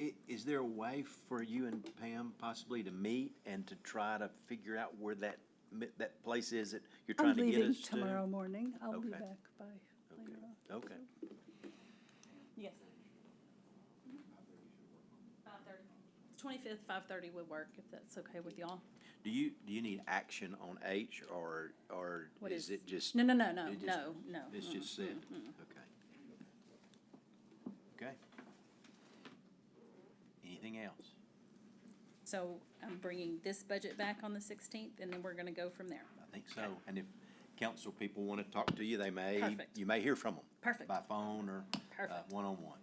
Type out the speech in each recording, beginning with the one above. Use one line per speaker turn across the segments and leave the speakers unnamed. I- is there a way for you and Pam possibly to meet and to try to figure out where that, mi- that place is that you're
I'm
trying to get
leaving
us to?
tomorrow morning. I'll be
Okay.
back by
Okay,
later on.
okay.
Yes. Five thirty. Twenty-fifth, five thirty would work, if that's okay with y'all.
Do you, do you need action on H or, or
What
is
is-
it just?
No, no, no, no,
it just-
no, no.
It's
mm-mm.
just said, okay. Okay. Anything else?
So I'm bringing this budget back on the sixteenth, and then we're gonna go from there.
I think so. And if council people want to talk to you, they may,
Perfect.
you may hear from them.
Perfect.
By phone or uh,
Perfect.
one-on-one.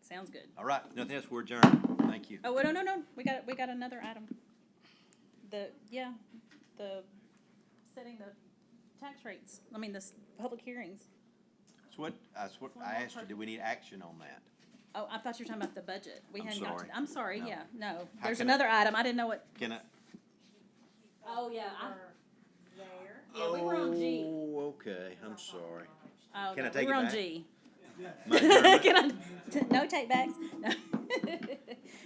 Sounds good.
All right, nothing else, we're adjourned. Thank you.
Oh, wait, no, no, no, we got, we got another item. The, yeah, the, setting the tax rates, I mean, the s- public hearings.
That's what, that's what I asked you, do we need action on that?
Oh, I thought you were talking about the budget. We
I'm
hadn't got
sorry.
to, I'm sorry,
No.
yeah, no.
How
There's
can I-
another item, I didn't know what.
Can I?
Oh, yeah,
there.
Yeah, we were on G.
Oh, okay, I'm sorry.
Oh,
Can I
no,
take
we're
it
on
back?
G.
My adjournment?
Can I, t- no take backs? No.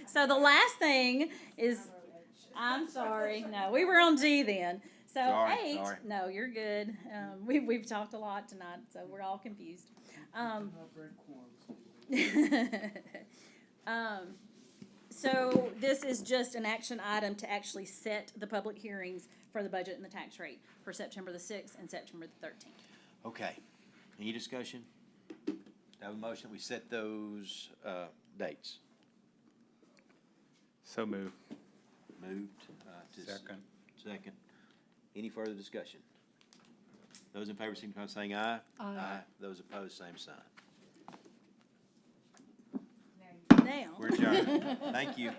So the last thing is, I'm sorry, no, we were on G then. So
Sorry,
eight,
sorry.
no, you're good. Um, we, we've talked a lot tonight, so we're all confused. Um, um, so this is just an action item to actually set the public hearings for the budget and the tax rate for September the sixth and September the thirteenth.
Okay, any discussion? Have a motion, we set those, uh, dates.
So move.
Moved, uh, to. s- Second. Any further discussion? Those in favor signify by saying aye.
Aye.
Those opposed, same sign.
Now.
We're adjourned. Thank you.